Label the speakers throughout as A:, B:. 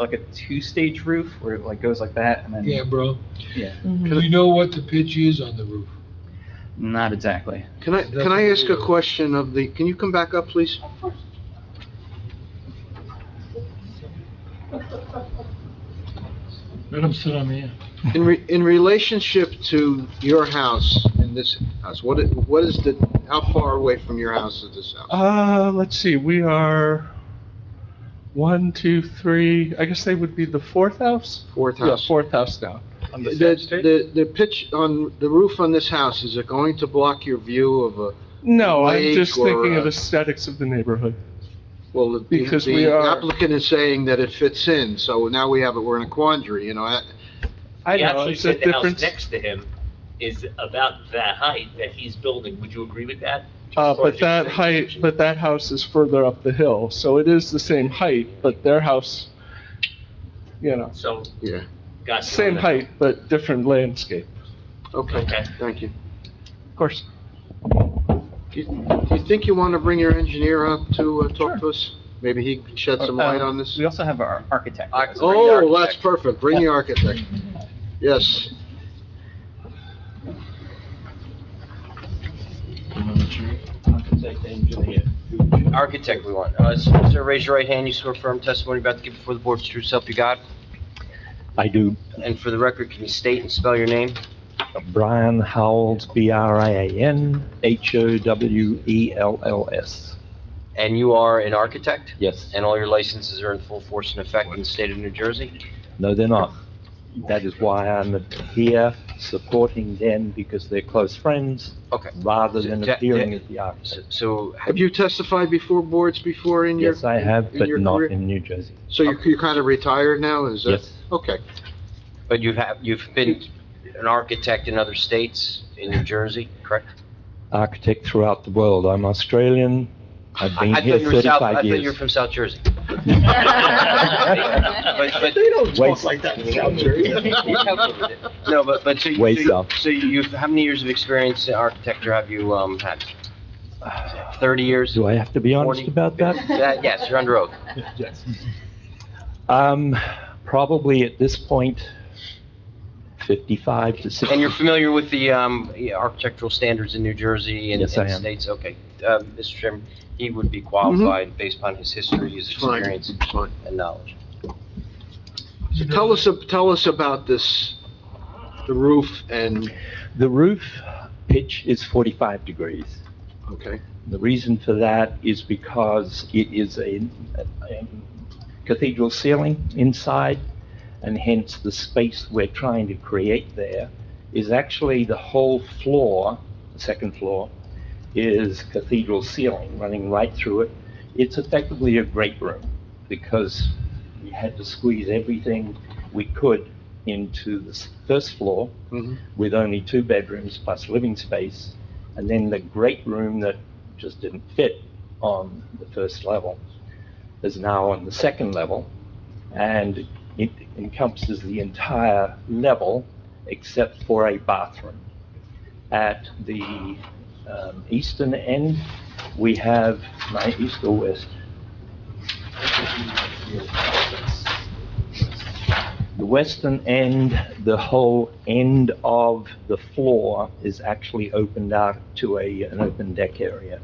A: like a two-stage roof where it like goes like that and then
B: Yeah, bro.
A: yeah.
B: Do you know what the pitch is on the roof?
A: Not exactly.
C: Can I, can I ask a question of the, can you come back up, please?
B: Let him sit on the end.
C: In, re- in relationship to your house and this house, what, i- what is the, how far away from your house is this house?
D: Uh, let's see, we are one, two, three, I guess they would be the fourth house?
C: Fourth
D: Yeah,
C: house?
D: fourth house down.
C: The, the, the pitch on, the roof on this house, is it going to block your view of a,
D: No, I'm
C: Lake
D: just
C: or,
D: thinking of
C: uh,
D: aesthetics of the neighborhood.
C: well, the- the
D: Because we
C: the
D: are-
C: applicant is saying that it fits in, so now we have, it. we're in a quandary, you know? I-
D: I
E: He
D: know,
E: actually
D: it's a
E: said the house
D: difference.
E: next to him is about that height that he's building. Would you agree with that?
D: Uh,
E: As far
D: but
E: as the
D: that
E: extent-
D: height, but that house is further up the hill, so it is the same height, but their house, you know,
E: So,
C: Yeah,
E: gotcha.
D: same height, but different landscape,
C: okay,
E: Okay.
C: thank you.
D: of course.
C: Do you do you think you want to bring your engineer up to uh, talk to us? Maybe he can shed
D: Uh,
C: some light on this?
A: Uh, We also have our architect. with us.
C: Oh, that's perfect, bring the architect. Yes.
F: Architect, engineer. Architect we want. Uh, so, Sir, raise your right hand. You swear firm testimony you're about to give before the board's true self you got.
G: I do.
F: And for the record, can you state and spell your name?
G: Brian Howells, B-R-I-A-N, H-O-W-E-L-L-S.
F: And you are an architect?
G: Yes.
F: And all your licenses are in full force and effect in the state of New Jersey?
G: No, they're not. That is why I'm here supporting them because they're close friends
F: Okay.
G: rather than
F: Yeah, yeah.
G: appearing as the
F: So-
G: architect.
F: So,
C: Have you testified before boards before in your?
G: Yes, I have,
C: in
G: but
C: your
G: not
C: career?
G: in New Jersey.
C: So you're, you're kind of retired now, is that?
G: Yes,
C: Okay,
F: but you have, you've been an architect in other states, in New Jersey, correct?
G: architect throughout the world. I'm Australian. I've been
F: I- I
G: here
F: thought you were South-
G: 35
F: I thought you were
G: years.
F: from South Jersey. But,
G: But-
F: but
G: Way south.
F: No, but, but so you,
G: Way
F: so you-
G: south.
F: so you, how many years of experience in architecture have you, um, had? Thirty years?
G: Do I have to be honest
F: 40?
G: about that?
F: Uh, Yes, you're under oath.
G: Um, probably at this point, 55 to 60.
F: And you're familiar with the, um, architectural standards in New Jersey and
G: Yes, I
F: and
G: am.
F: states? Okay. Um, Mr. Chairman, he would be
G: Mm-hmm.
F: qualified based upon his history, his
C: it's fine,
F: experience
C: it's fine.
F: and knowledge.
C: So tell us, tell us about this, the roof and,
G: The roof pitch is 45 degrees.
C: okay,
G: The reason for that is because it is a a cathedral ceiling inside, and hence the space we're trying to create there is actually the whole floor, the second floor, is cathedral ceiling running right through it. It's effectively a great room because we had to squeeze everything we could into the s- first floor,
C: mhm,
G: with only two bedrooms plus living space, and then the great room that just didn't fit on the first level is now on the second level, and it encompasses the entire level except for a bathroom. At the um, eastern end, we have, my east or west? The western end, the whole end of the floor is actually opened out to a, an open deck area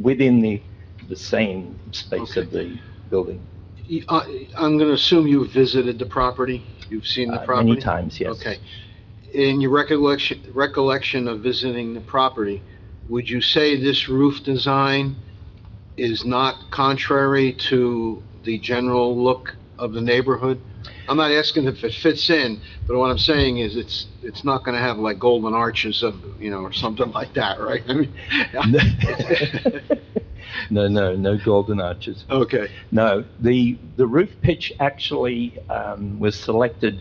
G: within the, the same space of the building.
C: You- I, Uh, I'm gonna assume you visited the property, you've seen the
G: Uh,
C: property?
G: Many times, yes.
C: Okay. In your recollection, recollection of visiting the property, would you say this roof design is not contrary to the general look of the neighborhood? I'm not asking if it fits in, but what I'm saying is it's, it's not gonna have like golden arches of, you know, or something like that, right? I mean,
G: No, no, no golden arches.
C: Okay,
G: No, the, the roof pitch actually um, was selected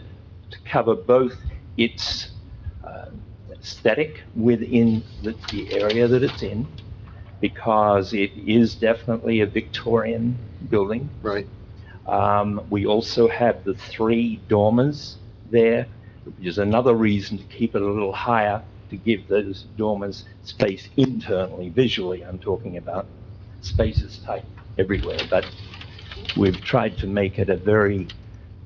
G: to cover both its uh, aesthetic within the, the area that it's in, because it is definitely a Victorian building.
C: right.
G: Um, We also have the three dormers there, which is another reason to keep it a little higher, to give those dormers space internally, visually, I'm talking about. Space is tight everywhere, but we've tried to make it a very